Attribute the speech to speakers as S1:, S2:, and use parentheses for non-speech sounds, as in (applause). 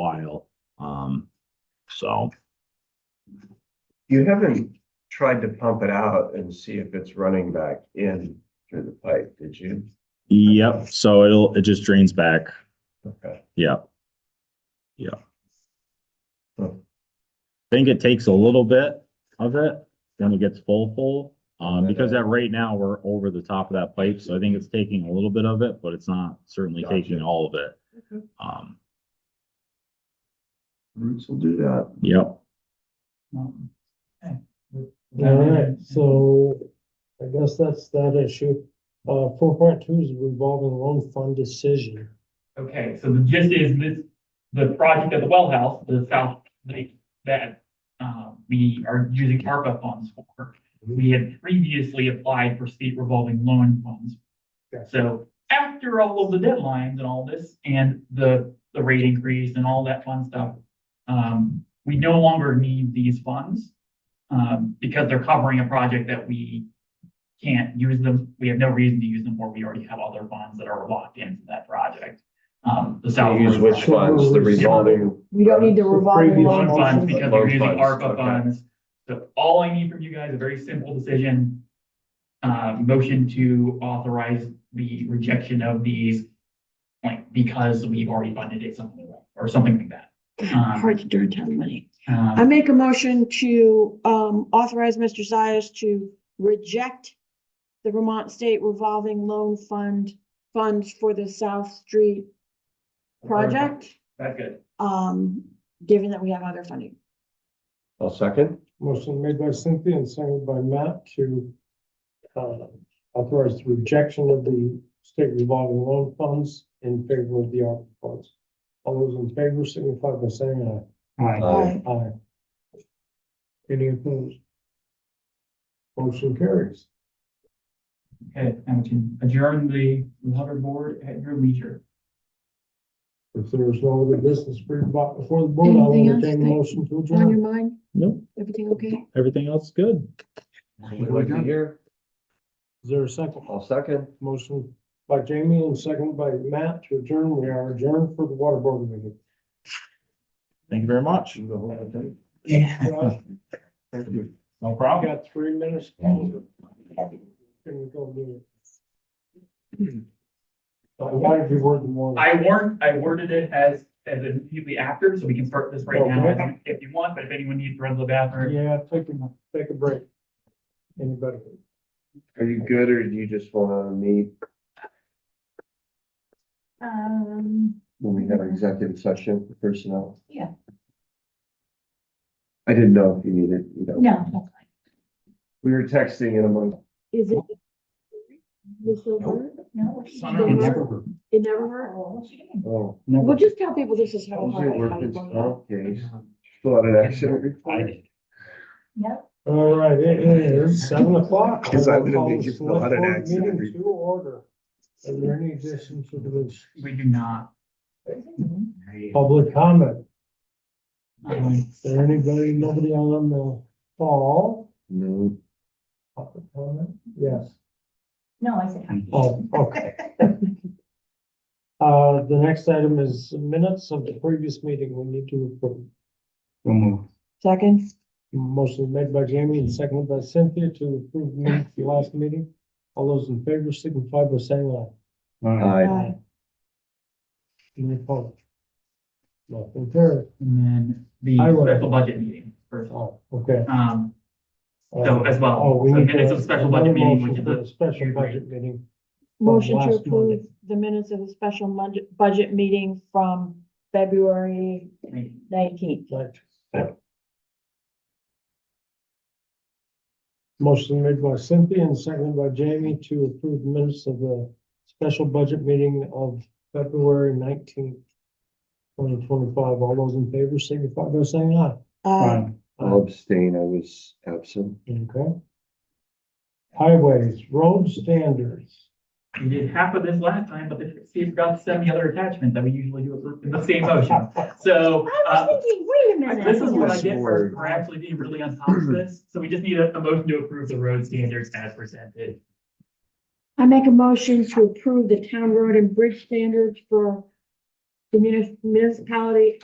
S1: while. Um, so.
S2: You haven't tried to pump it out and see if it's running back in through the pipe, did you?
S1: Yep, so it'll, it just drains back.
S2: Okay.
S1: Yeah.
S2: Hmm.
S1: Think it takes a little bit of it, then it gets full, full. Um, because at right now, we're over the top of that pipe, so I think it's taking a little bit of it, but it's not certainly taking
S2: Gotcha.
S1: all of it. Um,
S2: Roots will do that.
S1: yep,
S3: All right, so I guess that's that issue. Uh, four point two is revolving loan fund decision.
S4: Okay, so the gist is this, the project at the well house, the south lake that uh, we are using ARPA funds for. We had previously applied for state revolving loan funds.
S3: Gotcha.
S4: So after all of the deadlines and all this and the, the rate increase and all that fun stuff, um, we no longer need these funds um, because they're covering a project that we can't use them. We have no reason to use them for. We already have other funds that are locked in for that project. Um, the south.
S2: Use
S4: Lake
S2: which
S4: project.
S2: funds, the revolving,
S5: We don't need to revolve
S3: Previous
S5: along.
S4: Loan funds because we're
S2: Loan
S4: using
S2: funds,
S4: ARPA
S2: okay.
S4: funds. So all I need from you guys, a very simple decision. Uh, motion to authorize the rejection of these. Like, because we already funded it something like, or something like that.
S6: Hard to turn down money.
S5: I
S4: Um,
S5: make a motion to um authorize Mr. Zias to reject the Vermont State Revolving Loan Fund funds for the South Street project,
S4: That's good.
S5: um, given that we have other funding.
S2: I'll second.
S3: Motion made by Cynthia and seconded by Matt to uh, authorize the rejection of the state revolving loan funds in favor of the ARPA funds. All those in favor signify by saying
S2: Aye.
S3: aye. Aye. Any opposed? Motion carries.
S4: Okay, and we can adjourn the Hubbard board at your leisure.
S3: If there is no other business for your bo- before the board, I'll
S6: Anything else
S3: entertain a
S6: that-
S3: motion to
S5: On your
S3: adjourn.
S5: mind,
S1: nope,
S5: everything okay?
S1: everything else is good.
S2: Would you hear?
S3: Is there a second?
S2: I'll second.
S3: Motion by Jamie and second by Matt to adjourn. We are adjourned for the water board meeting.
S1: Thank you very much.
S2: You go home and think.
S4: Yeah.
S3: Josh,
S2: Thank you.
S1: No
S3: I
S1: problem.
S3: got three minutes. Can we go do it? Uh, Why did you word the one?
S4: I warned, I worded it as, as immediately after, so we can start this right now
S3: Okay.
S4: if you want, but if anyone needs to run to the bathroom.
S3: Yeah, take a, take a break. Anybody?
S2: Are you good or do you just wanna meet
S6: Um.
S2: when we have our executive session for personnel?
S6: Yeah.
S2: I didn't know if you needed, you know,
S6: No, that's fine.
S2: we were texting in among.
S5: Is it? This will work?
S6: No.
S4: Summer will
S5: never It never hurt?
S2: Oh.
S5: We'll just tell people this is
S2: That
S5: how
S2: was your
S5: hard.
S2: workman's
S5: I- I-
S2: comp case. Thought an accident
S4: I
S2: report.
S4: did.
S6: Yep.
S3: All right, it is seven o'clock.
S2: Because I would've
S3: I'll call
S2: made
S3: the
S2: you fill out an
S3: select board
S2: accident
S3: meeting
S2: report.
S3: To order. Are there any additions to this
S4: We do not.
S3: public comment?
S4: Um,
S3: Is there anybody, nobody on the call?
S2: No.
S3: Public comment? Yes.
S6: No, I said.
S3: Oh, (laughs) okay. Uh, the next item is minutes of the previous meeting we need to approve.
S5: Second?
S3: Motion made by Jamie and seconded by Cynthia to approve minutes of the last meeting. All those in favor signify by saying aye.
S2: I,
S5: Aye.
S3: Any opposed? Nothing carried.
S4: And then the
S3: I will.
S4: special budget meeting first of all.
S3: Oh, okay.
S4: Um,
S3: Uh,
S4: So as well,
S3: oh, we
S4: so
S3: need
S4: minutes
S3: to-
S4: of special budget meeting,
S3: another
S4: which is
S3: motion for
S4: a-
S3: the Special budget meeting.
S5: Motion to
S3: last Monday.
S5: approve the minutes of the special budget, budget meeting from February nineteenth.
S3: Right. Motion made by Cynthia and seconded by Jamie to approve minutes of the special budget meeting of February nineteenth, twenty twenty-five. All those in favor signify by saying aye.
S5: Uh,
S2: I'll abstain, I was absent.
S3: Okay. Highways, road standards.
S4: We did half of this last time, but the Steve forgot to send the other attachment that we usually do in the same motion. So,
S5: I
S4: uh,
S5: was thinking, wait a minute.
S4: this is what I
S2: Yes,
S4: get for,
S2: Lord.
S4: for actually being really on top of this. So we just need a, a motion to approve the road standards as presented.
S5: I make a motion to approve the town road and bridge standards for the munis- municipality